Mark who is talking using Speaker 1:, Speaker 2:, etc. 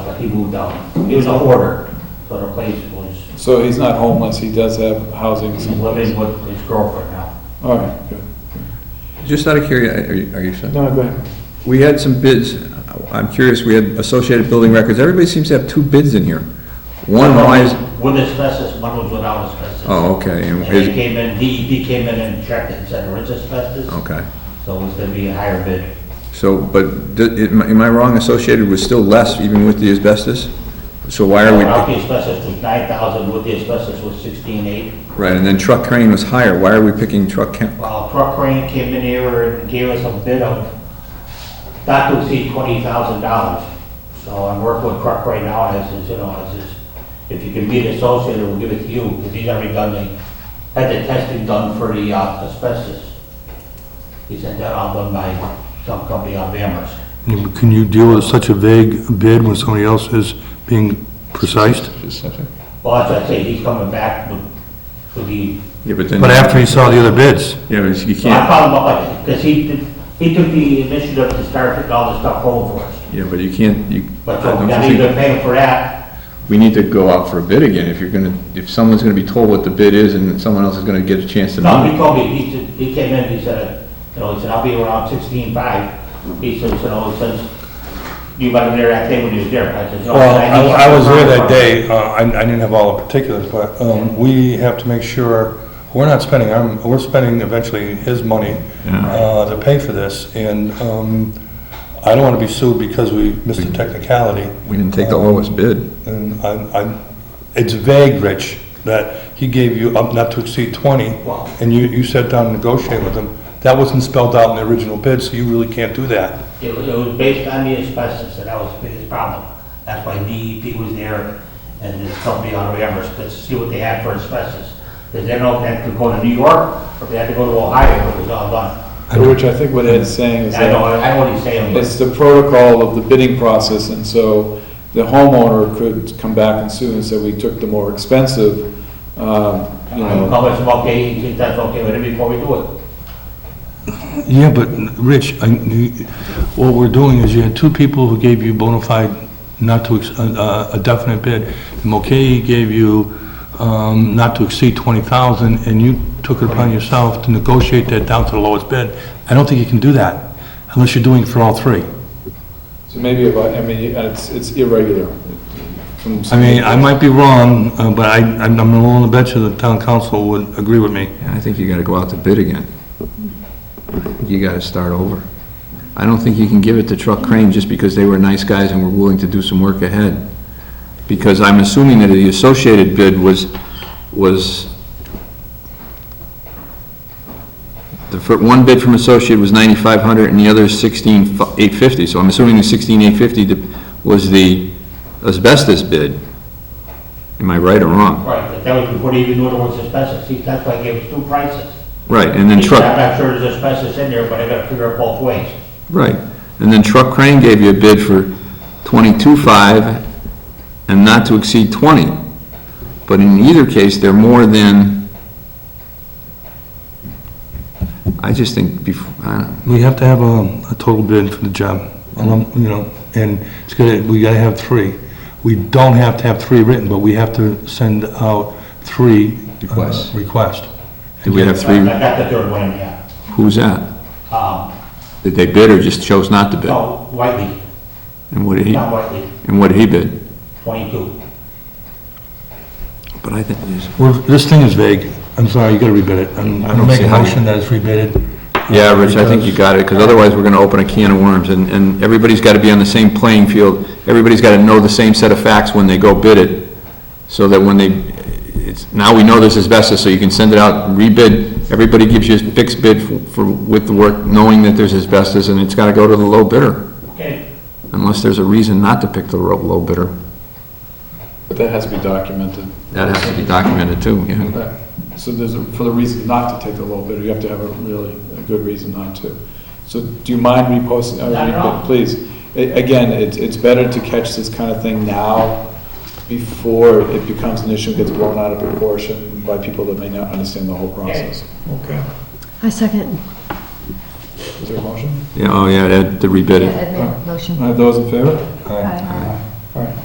Speaker 1: he moved on. He was a hoarder, so the place was,
Speaker 2: So he's not homeless, he does have housing
Speaker 1: he's
Speaker 2: somewhere.
Speaker 1: living with his girlfriend now.
Speaker 2: All right, good.
Speaker 3: Just out of curiosity, are you, are you sure?
Speaker 2: No, go ahead.
Speaker 3: We had some bids, I'm curious, we had Associated Building Records, everybody seems to have two bids in here. One, why is,
Speaker 1: With asbestos, one was without asbestos.
Speaker 3: oh, okay,
Speaker 1: And
Speaker 3: and
Speaker 1: they
Speaker 3: his,
Speaker 1: came in, DEP came in and checked and said there is asbestos.
Speaker 3: okay.
Speaker 1: So it was gonna be a higher bid.
Speaker 3: So, but, d- am I- am I wrong, Associated was still less even with the asbestos? So why are
Speaker 1: Without the
Speaker 3: we,
Speaker 1: asbestos was nine thousand, with the asbestos was sixteen eight.
Speaker 3: right, and then Truck Crane was higher, why are we picking Truck Crane?
Speaker 1: Well, Truck Uh, Crane came in here and gave us a bid of, not to exceed twenty thousand dollars. So I'm working with Truck Crane now, and I says, you know, I says, if you can be an associate, we'll give it to you, because he's already done the, had the testing done for the uh, asbestos. He sent that out done by some company out of Amherst.
Speaker 4: Can you deal with such a vague bid when somebody else is being precise?
Speaker 2: Just a second.
Speaker 1: Well, as I say, he's coming back with, with the,
Speaker 3: Yeah, but then,
Speaker 4: But
Speaker 3: yeah,
Speaker 4: after he saw the other bids,
Speaker 3: but you
Speaker 1: I
Speaker 3: can't,
Speaker 1: followed up on it, because he, did- he took the initiative to start putting all this stuff home for us.
Speaker 3: yeah, but you can't, you,
Speaker 1: But
Speaker 3: don't
Speaker 1: so,
Speaker 3: you
Speaker 1: now
Speaker 3: think-
Speaker 1: he's been paying for that,
Speaker 3: we need to go out for a bid again, if you're gonna, if someone's gonna be told what the bid is and someone else is gonna get a chance to
Speaker 1: no,
Speaker 3: know.
Speaker 1: he told me, he said, he came in, he said, you know, he said, I'll be around sixteen-five. He says, you know, he says, you might have been there that day when you was there, I said, no.
Speaker 4: Well,
Speaker 1: need
Speaker 4: I I was there
Speaker 1: something
Speaker 4: that day, Uh, I I didn't have all the particulars, but um, we have to make sure, we're not spending, our- we're spending eventually his money uh, to pay for this, and um, I don't want to be sued because we missed a technicality,
Speaker 3: We didn't take the lowest bid.
Speaker 4: and I, I- it's vague, Rich, that he gave you up not to exceed 20,
Speaker 1: Wow.
Speaker 4: and you, you sat down and negotiated with him. That wasn't spelled out in the original bid, so you really can't do that.
Speaker 1: It was, it was based on the asbestos, and that was the biggest problem. That's why DEP was there, and this company on Amherst, to see what they had for asbestos. Because they don't know if they had to go to New York, or if they had to go to Ohio, it was all done.
Speaker 2: Which I think what Ed's saying is
Speaker 1: I know,
Speaker 2: that
Speaker 1: I know what he's saying, but
Speaker 2: it's the protocol of the bidding process, and so the homeowner could come back and sue and say, we took the more expensive, um, you
Speaker 1: I'm
Speaker 2: know.
Speaker 1: calling some okay, he thinks that's okay with it before we do it.
Speaker 4: Yeah, but, Rich, I, you- what we're doing is you had two people who gave you bona fide, not to, ex- uh, a definite bid. Mulcahy gave you, um, not to exceed 20,000, and you took it upon yourself to negotiate that down to the lowest bid. I don't think you can do that unless you're doing it for all three.
Speaker 2: So maybe, if I I mean, it's, it's irregular. From-
Speaker 4: I mean, I might be wrong, uh, but I, I'm I'm willing to bet you the town council would agree with me.
Speaker 3: I think you gotta go out to bid again. I think You gotta start over. I don't think you can give it to Truck Crane just because they were nice guys and were willing to do some work ahead. Because I'm assuming that the associated bid was, was, the fir- one bid from associate was 9,500 and the other is 16,850. So I'm assuming the 16,850 was the asbestos bid. Am I right or wrong?
Speaker 1: Right, but that was before they even knew there was asbestos, see, that's why I gave us two prices.
Speaker 3: Right, and then
Speaker 1: He said,
Speaker 3: Truck...
Speaker 1: I'm not sure there's asbestos in there, but I gotta figure it both ways.
Speaker 3: Right, and then Truck Crane gave you a bid for twenty-two-five and not to exceed twenty. But in either case, they're more than, I just think before, I don't know.
Speaker 4: We have to have a, a total bid for the job, um, you know, and it's gonna, we gotta have three. We don't have to have three written, but we have to send out three. uh,
Speaker 3: Requests.
Speaker 4: Requests.
Speaker 3: did we have
Speaker 1: I
Speaker 3: three,
Speaker 1: I got the third one, yeah.
Speaker 3: who's that?
Speaker 1: Um,
Speaker 3: Did they bid or just chose not to bid?
Speaker 1: no, Whiteley,
Speaker 3: And what did he,
Speaker 1: not Whiteley,
Speaker 3: and what did he bid?
Speaker 1: twenty-two.
Speaker 3: But I think, there's-
Speaker 4: Well, this thing is vague. I'm sorry, you gotta rebid it. I'm,
Speaker 3: don't
Speaker 4: I'm making
Speaker 3: see
Speaker 4: a
Speaker 3: how you-
Speaker 4: motion that it's rebid. Uh,
Speaker 3: yeah, Rich, I think you got it, because otherwise we're gonna open a can of worms, and, and everybody's gotta be on the same playing field. Everybody's gotta know the same set of facts when they go bid it. so that when they, it's, now we know this is asbestos, so you can send it out, rebid, everybody gives you a fixed bid for- for, with the work, knowing that there's asbestos, and it's gotta go to the low bidder,
Speaker 1: Okay,
Speaker 3: unless there's a reason not to pick the ro- low bidder.
Speaker 2: But that has to be documented.
Speaker 3: That has to be documented too, yeah.
Speaker 2: Right. So there's, a- for the reason not to take the low bidder, you have to have a really, a good reason not to. So do you mind reposting? uh,
Speaker 1: Not at all.
Speaker 2: re- Please. A- Again, it's, it's better to catch this kind of thing now before it becomes an issue, and gets blown out of proportion by people that may not understand the whole process. Okay.
Speaker 5: I second.
Speaker 2: Is there a motion?
Speaker 3: Yeah, oh yeah, that, to rebid
Speaker 5: Yeah,
Speaker 3: it.
Speaker 5: Ed made a motion.
Speaker 2: All right, Those in favor?
Speaker 5: Aye.